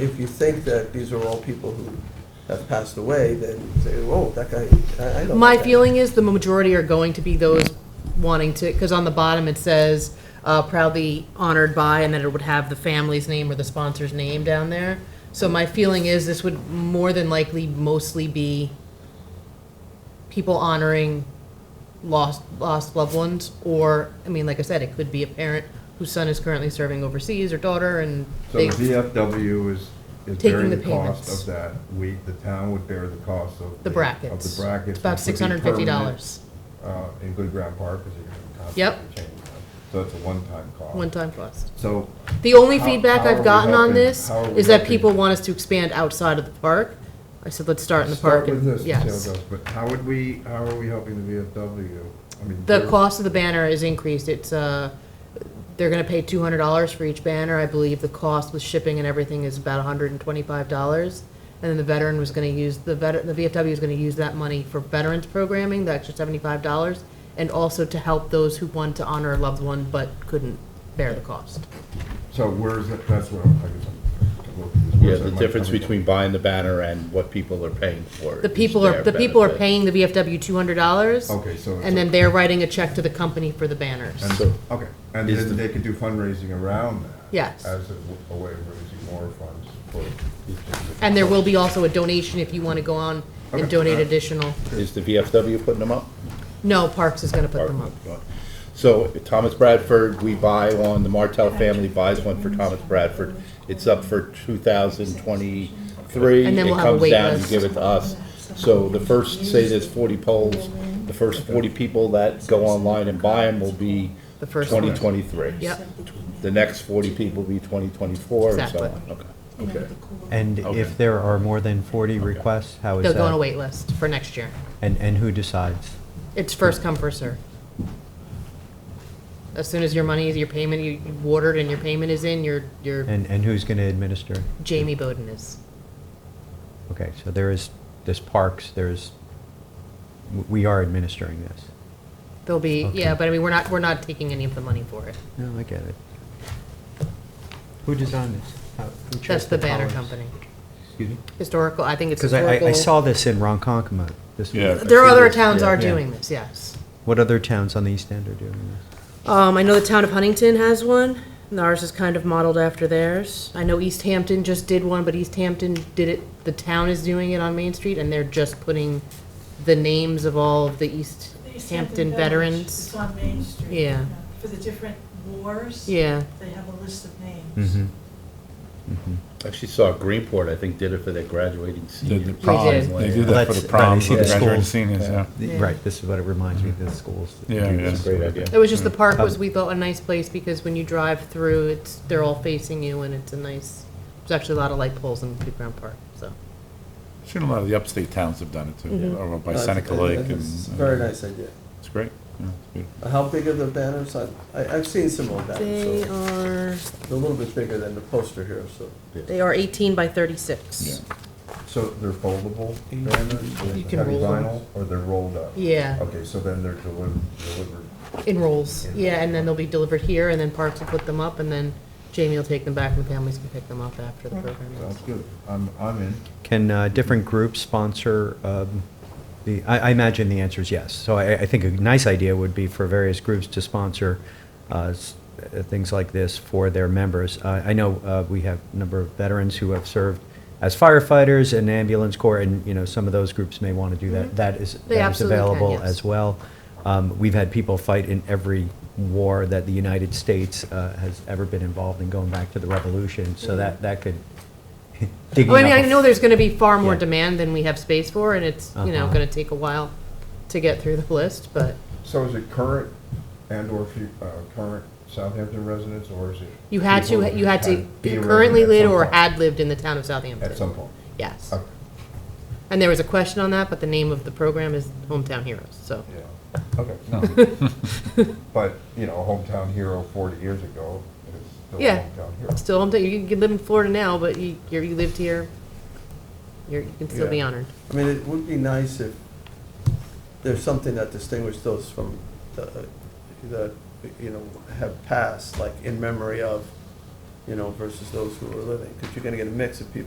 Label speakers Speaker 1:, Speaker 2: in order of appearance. Speaker 1: if you think that these are all people who have passed away, then say, whoa, that guy, I I know.
Speaker 2: My
Speaker 1: that guy."
Speaker 2: feeling is the majority are going to be those wanting to, because on the bottom it says uh, proudly honored by, and then it would have the family's name or the sponsor's name down there. So my feeling is this would more than likely mostly be people honoring lost, lost loved ones, or, I mean, like I said, it could be a parent whose son is currently serving overseas or daughter, and
Speaker 3: So
Speaker 2: they,
Speaker 3: the VFW is, is
Speaker 2: Taking
Speaker 3: bearing
Speaker 2: the
Speaker 3: the cost
Speaker 2: payments.
Speaker 3: of that. We, the town would bear the cost of.
Speaker 2: the brackets.
Speaker 3: Of the brackets.
Speaker 2: It's about
Speaker 3: which would be
Speaker 2: six hundred and fifty
Speaker 3: permanent,
Speaker 2: dollars,
Speaker 3: Uh, in Good Ground Park, because you're gonna
Speaker 2: Yep.
Speaker 3: constantly change them. So it's a one-time cost.
Speaker 2: one-time cost.
Speaker 3: So,
Speaker 2: The only
Speaker 3: How-
Speaker 2: feedback
Speaker 3: how are
Speaker 2: I've
Speaker 3: we
Speaker 2: gotten on
Speaker 3: helping-
Speaker 2: this
Speaker 3: how are we
Speaker 2: is that
Speaker 3: helping?
Speaker 2: people want us to expand outside of the park. I said, let's start in the park.
Speaker 3: start with
Speaker 2: and-
Speaker 3: this, see how it
Speaker 2: Yes.
Speaker 3: goes. But how would we, how are we helping the VFW? I mean,
Speaker 2: The
Speaker 3: they're-
Speaker 2: cost of the banner is increased. It's, uh, they're gonna pay two hundred dollars for each banner. I believe the cost with shipping and everything is about hundred and twenty-five dollars. And then the veteran was gonna use, the veteran, the VFW is gonna use that money for veterans programming, the extra seventy-five dollars, and also to help those who wanted to honor a loved one but couldn't bear the cost.
Speaker 3: So where's it, that's what I'm, I guess I'm. looking at,
Speaker 4: Yeah,
Speaker 3: where's that
Speaker 4: the
Speaker 3: money
Speaker 4: difference
Speaker 3: coming from?
Speaker 4: between buying the banner and what people are paying for.
Speaker 2: The
Speaker 4: is
Speaker 2: people are,
Speaker 4: their
Speaker 2: the people are
Speaker 4: benefit.
Speaker 2: paying the VFW two hundred dollars.
Speaker 3: Okay, so it's
Speaker 2: And
Speaker 3: a-
Speaker 2: then they're writing a check to the company for the banners.
Speaker 3: And
Speaker 4: So-
Speaker 3: Okay, and
Speaker 4: Is
Speaker 3: then
Speaker 4: the-
Speaker 3: they could do fundraising around that.
Speaker 2: Yes.
Speaker 3: As a w- a way of raising more funds for.
Speaker 2: And there will be also a donation if you want to go on and
Speaker 3: Okay.
Speaker 2: donate additional.
Speaker 4: Is the VFW putting them up?
Speaker 2: No, Parks is going to put them up.
Speaker 4: So Thomas Bradford, we buy one, the Martell family buys one for Thomas Bradford. It's up for two thousand twenty-three.
Speaker 2: And then we'll have a wait
Speaker 4: It comes down, you
Speaker 2: list.
Speaker 4: give it to us. So the first, say there's forty polls, the first forty people that go online and buy them will be
Speaker 2: The first one.
Speaker 4: twenty twenty-three.
Speaker 2: Yep.
Speaker 4: The next forty people will be twenty twenty-four and so
Speaker 2: Exactly.
Speaker 4: on, okay.
Speaker 5: Okay.
Speaker 6: And
Speaker 4: Okay.
Speaker 6: if there are more than 40 requests, how is that?
Speaker 2: They'll go on a Mm-hmm. wait list for next year.
Speaker 6: And, and who decides?
Speaker 2: It's first come, first serve. As soon as your money, your payment, you you ordered and your payment is in, your, your
Speaker 6: And, and who's going to administer?
Speaker 2: Jamie Bowden is.
Speaker 6: Okay, so there is, this parks, there's, w- we are administering this.
Speaker 2: There'll be,
Speaker 6: Okay.
Speaker 2: yeah, but I mean, we're not, we're not taking any of the money for it.
Speaker 6: No, I get it. Who designed this? How- who chose
Speaker 2: That's the banner
Speaker 6: colors?
Speaker 2: company.
Speaker 6: Excuse me?
Speaker 2: Historical, I think it's
Speaker 6: Because I,
Speaker 2: historical.
Speaker 6: I- I saw this in Ronkonkoma. this
Speaker 4: Yeah.
Speaker 6: week.
Speaker 2: There are other towns
Speaker 4: Yeah.
Speaker 2: are
Speaker 6: Yeah.
Speaker 2: doing this, yes.
Speaker 6: What other towns on the East End are doing this?
Speaker 2: Um, I know the town of Huntington has one, and ours is kind of modeled after theirs. I know East Hampton just did one, but East Hampton did it, the town is doing it on Main Street, and they're just putting the names of all of the East
Speaker 7: East
Speaker 2: Hampton
Speaker 7: Village
Speaker 2: veterans.
Speaker 7: is on Main Street.
Speaker 2: Yeah.
Speaker 7: For the different wars.
Speaker 2: Yeah,
Speaker 7: They have a list of names.
Speaker 6: Mhm.
Speaker 4: Actually saw Greenport, I think, did it for their graduating seniors.
Speaker 2: prom. They did.
Speaker 8: They do
Speaker 6: Well,
Speaker 8: that for
Speaker 6: that's-
Speaker 8: the prom,
Speaker 6: right,
Speaker 8: for
Speaker 6: you
Speaker 8: the
Speaker 6: see the
Speaker 8: graduating
Speaker 6: schools.
Speaker 8: seniors,
Speaker 4: uh,
Speaker 8: yeah.
Speaker 2: Yeah.
Speaker 6: Right, this is what it reminds me, the schools. that
Speaker 8: Yeah,
Speaker 6: do
Speaker 8: yeah.
Speaker 6: this.
Speaker 4: It's a great idea.
Speaker 2: it was just the
Speaker 6: Mm-hmm.
Speaker 2: park was, we thought, a nice place, because when you drive through, it's, they're all facing you, and it's a nice, there's actually a lot of light poles in Big Ground Park, so.
Speaker 8: Seen a lot of the upstate towns have done it too, over by
Speaker 1: Uh,
Speaker 8: Seneca
Speaker 1: I- I
Speaker 8: Lake
Speaker 1: think
Speaker 8: and. uh,
Speaker 1: It's a very nice idea.
Speaker 8: It's great, yeah, it's beautiful.
Speaker 1: How big are the banners? I, I- I've seen some old banners,
Speaker 2: They
Speaker 1: so
Speaker 2: are,
Speaker 1: they're a little bit bigger than the poster here, so.
Speaker 2: they are eighteen by thirty-six.
Speaker 8: Yeah.
Speaker 3: So they're foldable banners?
Speaker 2: You can
Speaker 3: heavy
Speaker 2: roll them.
Speaker 3: vinyl, Or they're rolled up?
Speaker 2: Yeah.
Speaker 3: Okay, so then they're delivered, delivered.
Speaker 2: In rolls, yeah, and then they'll be delivered here, and then Parks will put them up, and then Jamie will take them back, and the families can pick them up after the program ends.
Speaker 3: Sounds good. I'm, I'm in.
Speaker 6: Can uh, different groups sponsor um, the, I I imagine the answer is yes. So I I think a nice idea would be for various groups to sponsor uh, s- uh, things like this for their members. Uh, I know uh, we have a number of veterans who have served as firefighters and ambulance corps, and, you know, some of those groups may want to do that. That is
Speaker 2: Mm-hmm. They
Speaker 6: that is
Speaker 2: absolutely can,
Speaker 6: available
Speaker 2: yes.
Speaker 6: as well. Um, We've had people fight in every war that the United States uh, has ever been involved in, going back to the Revolution, so that that could digging
Speaker 2: Oh, Mm. I mean,
Speaker 6: up
Speaker 2: I
Speaker 6: a
Speaker 2: know there's gonna be far more
Speaker 6: Yeah.
Speaker 2: demand than we have space for, and it's, you know,
Speaker 6: Uh-huh.
Speaker 2: gonna take a while to get through the list, but
Speaker 3: So is it current and/or fu- uh, current Southampton residents, or is it?
Speaker 2: you had
Speaker 3: people
Speaker 2: to,
Speaker 3: who
Speaker 2: you had to
Speaker 3: had- be
Speaker 2: be
Speaker 3: a
Speaker 2: currently
Speaker 3: resident
Speaker 2: live
Speaker 3: at some
Speaker 2: or
Speaker 3: point?
Speaker 2: had lived in the town of Southampton.
Speaker 3: At some point.
Speaker 2: Yes.
Speaker 3: Okay,
Speaker 2: And there was a question on that, but the name of the program is Hometown Heroes, so.
Speaker 3: yeah, okay. But, you know, a hometown hero 40 years ago is still a
Speaker 2: Yeah.
Speaker 3: hometown hero.
Speaker 2: Still, hometown- you can live in Florida now, but you, you're- you lived here, you're, you can still be
Speaker 1: Yeah.
Speaker 2: honored.
Speaker 1: I mean, it would be nice if there's something that distinguished those from the, that, you know, have passed, like in memory of, you know, versus those who are living, because you're gonna get a mix of people